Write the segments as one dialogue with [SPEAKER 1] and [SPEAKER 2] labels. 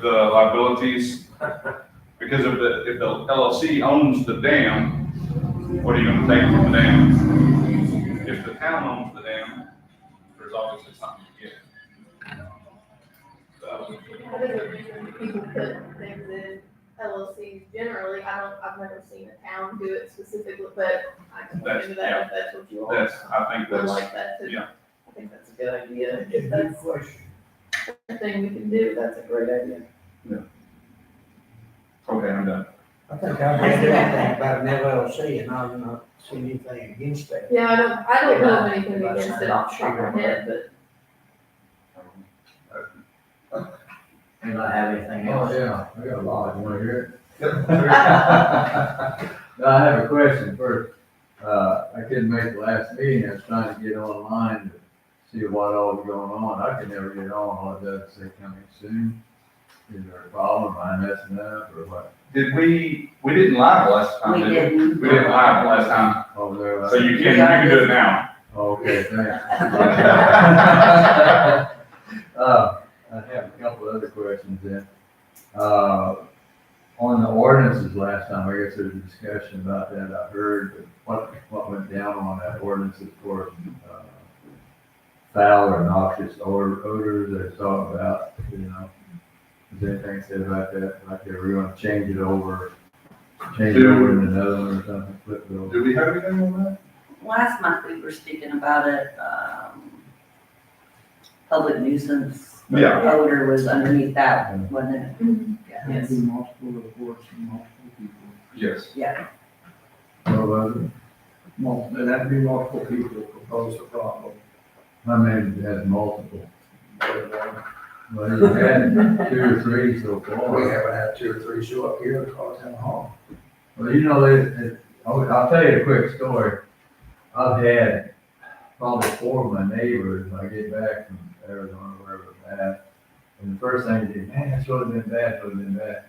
[SPEAKER 1] the liabilities, because if the, if the LLC owns the dam, what are you gonna take from the dam? If the town owns the dam, there's obviously something to get. So,
[SPEAKER 2] I think people put things in LLCs generally, I don't, I've never seen a town do it specifically, but I can look into that if that's what you want.
[SPEAKER 1] That's, I think
[SPEAKER 2] I
[SPEAKER 1] that's,
[SPEAKER 2] like that too.
[SPEAKER 1] yeah.
[SPEAKER 2] I think that's a good idea, if that's
[SPEAKER 3] question.
[SPEAKER 2] the thing we can do, that's a great idea.
[SPEAKER 1] okay, I'm done.
[SPEAKER 3] I think I've read everything about an LLC and I've not seen anything against that.
[SPEAKER 2] Yeah, I don't, I don't know of anything against it off the top of my head, but
[SPEAKER 4] Anybody have anything
[SPEAKER 5] Oh,
[SPEAKER 4] else?
[SPEAKER 5] yeah, I got a lot, you wanna hear
[SPEAKER 4] Yep.
[SPEAKER 5] it? No, I have a question first. Uh, I couldn't make the last meeting, I was trying to get online to see what all was going on, I could never get on, all it does is say coming soon. Is there a problem, am I messing up, or what?
[SPEAKER 1] Did we, we didn't live last time, did we?
[SPEAKER 4] didn't.
[SPEAKER 1] We didn't live last time,
[SPEAKER 5] Over there,
[SPEAKER 1] so
[SPEAKER 5] like,
[SPEAKER 1] you can, you can do it now.
[SPEAKER 5] okay, thanks. Uh, I have a couple other questions then. Uh, on the ordinances last time, I guess there was a discussion about that, I heard what, what went down on that ordinance of course. uh, Foul or noxious odor, odors they're talking about, you know. Is there anything said about that, like they were gonna change it over, change it over to another one or something, flip it over?
[SPEAKER 1] Did we have anything on that?
[SPEAKER 6] Last month, we were speaking about it, um, public nuisance.
[SPEAKER 1] Yeah.
[SPEAKER 6] Odor was underneath that, one, wasn't it?
[SPEAKER 2] Mm-hmm.
[SPEAKER 3] Yes. Multiple reports from multiple people.
[SPEAKER 1] Yes.
[SPEAKER 5] What was it?
[SPEAKER 3] Multiple, that'd be multiple people propose a problem.
[SPEAKER 5] I mean, it has multiple. Well, you had two or three so
[SPEAKER 3] We
[SPEAKER 5] far.
[SPEAKER 3] haven't had two or three show up here to cause them harm.
[SPEAKER 5] Well, you know, it, it, I'll, I'll tell you a quick story. I've had probably four of my neighbors, when I get back from Arizona, wherever it's at. And the first thing they did, man, that should have been bad, should have been bad.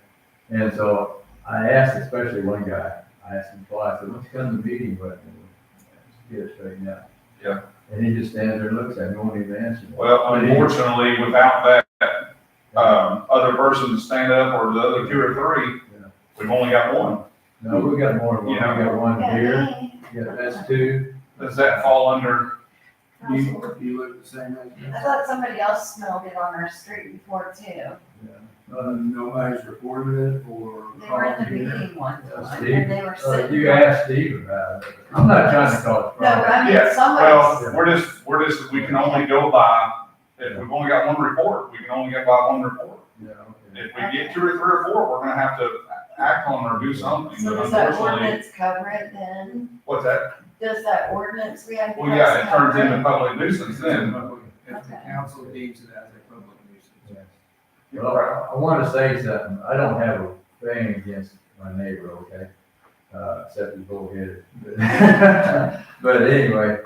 [SPEAKER 5] And so I asked especially one guy, I asked him twice, I said, what's come to the meeting with? Just Get it straightened out.
[SPEAKER 1] Yeah.
[SPEAKER 5] And he just stands there and looks at me, won't even answer. me.
[SPEAKER 1] Well,
[SPEAKER 5] But he-
[SPEAKER 1] unfortunately, without that,
[SPEAKER 3] Uh,
[SPEAKER 1] um, other person to stand up or the other two or three,
[SPEAKER 5] Yeah.
[SPEAKER 1] we've only got one.
[SPEAKER 5] No, we got more than one. We got one here. Yeah, that's two.
[SPEAKER 1] Does that fall under,
[SPEAKER 3] You, you look the same as me.
[SPEAKER 7] I thought somebody else smelled it on our street before too.
[SPEAKER 3] Uh, Nobody's reported it or.
[SPEAKER 7] They
[SPEAKER 1] Oh,
[SPEAKER 7] were in the meeting one time and they were
[SPEAKER 5] Uh,
[SPEAKER 7] sitting.
[SPEAKER 5] you asked Steve about it. I'm not trying to call it.
[SPEAKER 7] No, but I
[SPEAKER 1] Yeah,
[SPEAKER 7] mean, somebody's,
[SPEAKER 1] well, we're just, we're just, we can only go by, if we've only got one report, we can only get by one report.
[SPEAKER 5] Yeah, okay.
[SPEAKER 1] If we get two or three or four, we're gonna have to act on or do something,
[SPEAKER 7] so
[SPEAKER 1] but
[SPEAKER 7] does that
[SPEAKER 1] unfortunately,
[SPEAKER 7] ordinance cover it then?
[SPEAKER 1] what's that?
[SPEAKER 7] Does that ordinance we have? to
[SPEAKER 1] Well, yeah, it
[SPEAKER 7] pass
[SPEAKER 1] turns
[SPEAKER 7] cover
[SPEAKER 1] into public nuisance then.
[SPEAKER 3] If the council deems it as a public nuisance.
[SPEAKER 5] Well, I- I want to say something. I don't have a thing against my neighbor, okay? Uh, except he's bullheaded. But anyway,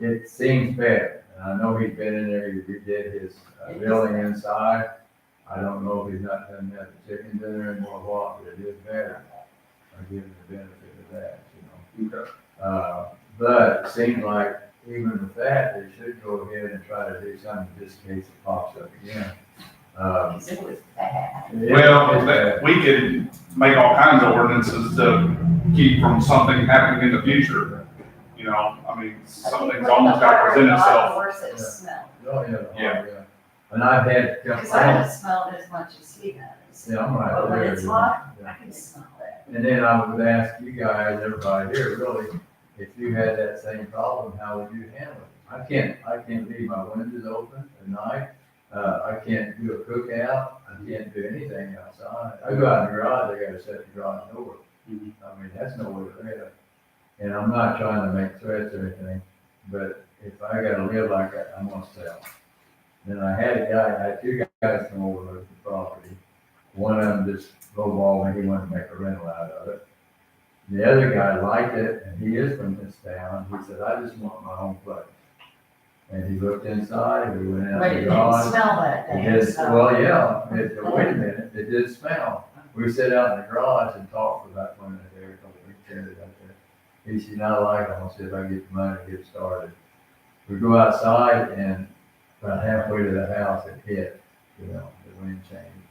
[SPEAKER 5] it seems bad. And I know he's been in there, he redid his uh, building inside. I don't know if he's not done that the chickens in there anymore, what, but it is bad. I give him the benefit of that, you know?
[SPEAKER 1] Okay.
[SPEAKER 5] Uh, But it seems like even with that, they should go ahead and try to do something in this case it pops up again. Um,
[SPEAKER 7] It was bad.
[SPEAKER 5] it-
[SPEAKER 1] Well, that, we could make all kinds of ordinances to keep from something happening in the future. You know, I mean,
[SPEAKER 7] I think
[SPEAKER 1] something's
[SPEAKER 7] when the
[SPEAKER 1] almost got to
[SPEAKER 7] fire
[SPEAKER 1] present
[SPEAKER 7] got
[SPEAKER 1] itself.
[SPEAKER 7] Worse it
[SPEAKER 5] Yeah.
[SPEAKER 7] smelled,
[SPEAKER 5] Oh, yeah. oh,
[SPEAKER 1] Yeah.
[SPEAKER 5] And I've had,
[SPEAKER 7] cause
[SPEAKER 5] I
[SPEAKER 7] I
[SPEAKER 5] don't,
[SPEAKER 7] don't smell it as much as he does.
[SPEAKER 5] yeah, I'm right
[SPEAKER 7] But when
[SPEAKER 5] there,
[SPEAKER 7] it's
[SPEAKER 5] yeah.
[SPEAKER 7] hot,
[SPEAKER 5] Yeah.
[SPEAKER 7] I can smell it.
[SPEAKER 5] And then I would ask you guys, everybody here, really, if you had that same problem, how would you handle it? I can't, I can't leave my windows open at night, uh, I can't do a cookout, I can't do anything outside. I go out in the garage, I gotta shut the garage door. I
[SPEAKER 1] Mhm.
[SPEAKER 5] mean, that's no way to live. And I'm not trying to make threats or anything, but if I gotta live like that, I'm gonna sell. Then I had a guy, I had two guys come over to the property, one of them just lowballed and he wanted to make a rental out of it. The other guy liked it, and he is from this town, he said, I just want my own place. And he looked inside, we went out
[SPEAKER 7] But it
[SPEAKER 5] the
[SPEAKER 7] didn't
[SPEAKER 5] garage.
[SPEAKER 7] smell that
[SPEAKER 5] It
[SPEAKER 7] day,
[SPEAKER 5] is,
[SPEAKER 7] so.
[SPEAKER 5] well, yeah, it, wait a minute, it did smell. We sat out in the garage and talked for about one minute there, a couple of minutes out there. He said, I like it, I'll see if I can get the money to get started. We go outside and about halfway to the house, it hit, you know, the wind changed.